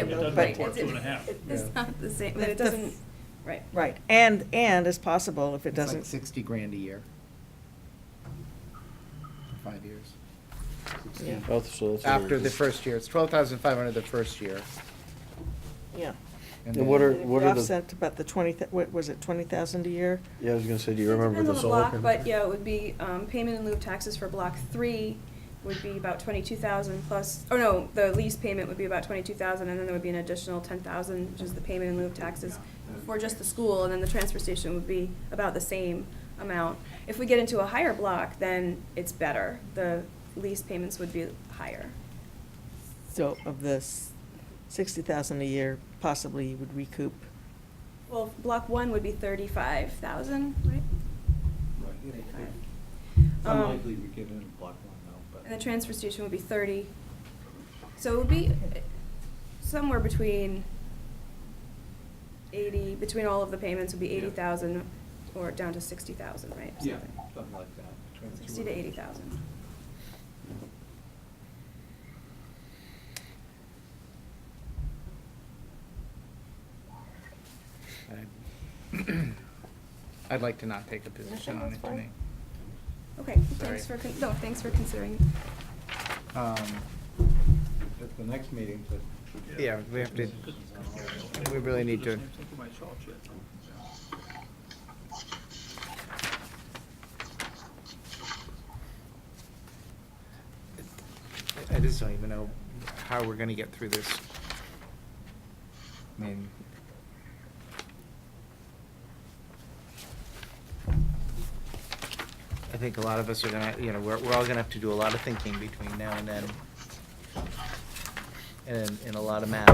It though. doesn't but- report two and a half. It's Yeah. not the same. But it the f- doesn't- Right. Right, and, and it's possible if it It's like doesn't, sixty grand a year. Five years. 60. Yeah. Oh, so that's what we're After the just- first year, it's twelve thousand five hundred the first year. yeah. And what are- If we the- Offset about the twenty, thou- what was it, twenty thousand a year? Yeah, I was gonna say, do you It remember depends the on solar? block, But, yeah, it would be, um, payment in lieu of taxes for block three would be about twenty-two thousand plus, oh no, the lease payment would be about twenty-two thousand, and then there would be an additional ten thousand, which is the payment in lieu of taxes for just the school, and then the transfer station would be about the same amount. If we get into a higher block, then it's better, the lease payments would be higher. So of this sixty thousand a year, possibly you would recoup. Well, block one would be thirty-five thousand, right? Thirty-five. Um, Unlikely we get in block one now, And the but transfer station would be thirty. So it would be uh, somewhere between eighty, between all of the payments would be Yeah. eighty thousand or down to sixty thousand, right? yeah, Something. something like that. between the two Sixty of to them. eighty thousand. I'd- I'd like to not take a position on it tonight. Okay, Sorry. thanks for, con- no, thanks for considering. Um, At the next meeting, but. Yeah, we have to, we really need to, I just don't even know how we're gonna get through this. I mean, I think a lot of us are gonna, you know, we're, we're all gonna have to do a lot of thinking between now and then. And, and a lot of math.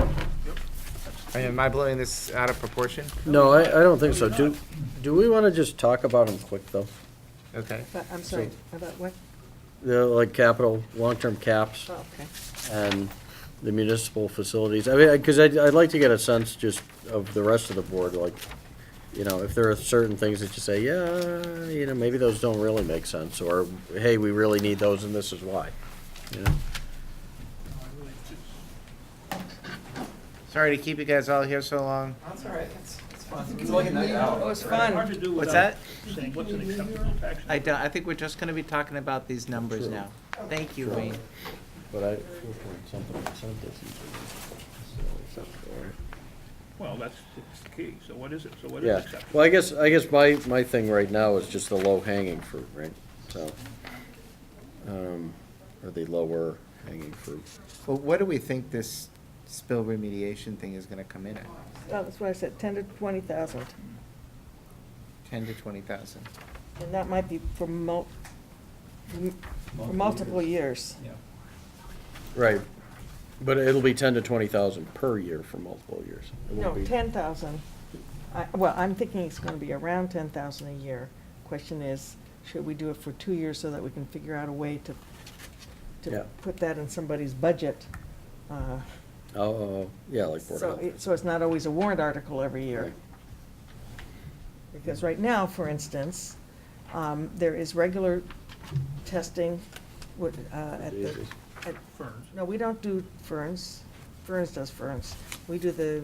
I mean, Am I blowing this out of proportion? No, I, I don't think so. Do, do we wanna just talk about them quick, though? Okay. But, I'm sorry, about what? They're like capital, long-term caps Oh, okay. and the municipal facilities. I mean, I- cause I'd, I'd like to get a sense just of the rest of the board, like, you know, if there are certain things that you say, yeah, you know, maybe those don't really make sense, or, hey, we really need those and this is why, you know? Sorry to keep you guys all here so long. That's all right, it's, it's fun. It's like a night out. Oh, it's Hard fun. to do What's without that? saying what's an acceptable tax I don't, I think we're just gonna be talking about these numbers Sure. now. Thank you, Wayne. But I, something, something. Well, that's, it's the key. So what is it? So what is Yeah, acceptable? well, I guess, I guess my, my thing right now is just the low hanging fruit, right? So, um, or the lower hanging fruit. Well, what do we think this spill remediation thing is gonna come in at? Oh, that's what I said, ten to twenty thousand. Ten to twenty thousand? And that might be for mul, for multiple years. Yeah. Right, but it'll be ten to twenty thousand per year for multiple years. It No, won't be- ten thousand. I, well, I'm thinking it's gonna be around ten thousand a year. Question is, should we do it for two years so that we can figure out a way to, Yeah. to put that in somebody's budget? uh, Oh, Oh, oh, yeah, like Board of So, Health. it- so it's not always a warrant article every year. Right. Because right now, for instance, um, there is regular testing with, uh, at the, Diseases. at Ferns. no, we don't do ferns. Ferns does ferns. We do the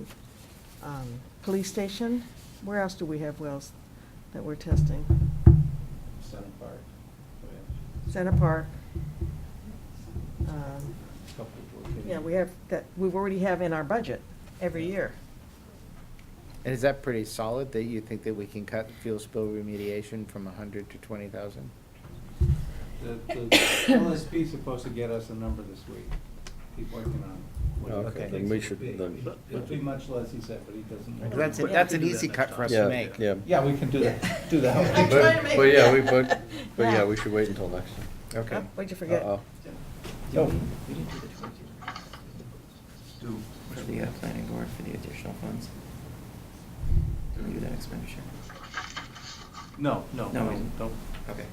um, police station. Where else do we have wells that we're testing? Center part. Center Park. Um, Couple of locations. Yeah, we have, that, we already have in our budget every year. And is that pretty solid, that you think that we can cut fuel spill remediation from a hundred to twenty thousand? The, the LSP is supposed to get us a number this week. Keep working on it. Okay, What he then thinks we it should- would be. then- It'd be much less, he said, but he doesn't. know. That's, it. a- that's an easy cut for us to Yeah, make. Yeah. Yeah, we can do that, do that. I'm trying to But, make but yeah, it. we, but, but Yeah. yeah, we should wait until next time. Okay. Oh, What'd you forget? Uh-oh. No. We didn't do the twenty. For the uh, planning board, for the additional funds. Did we do that expenditure? No, no, No, we no, didn't. don't. Okay.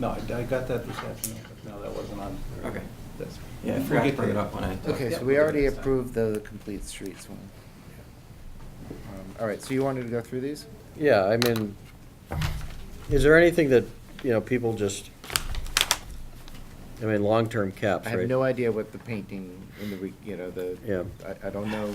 No, I I got that this afternoon, but no, that wasn't on. Okay. That's- Yeah, I we'll forgot to get bring it there. up when I talked. Okay, so we already approved the complete streets one. Um, All right, so you wanted to go through these? Yeah, I mean, is there anything that, you know, people just, I mean, long-term caps, I right? have no idea what the painting in the, re- you know, the. Yeah. I, I don't know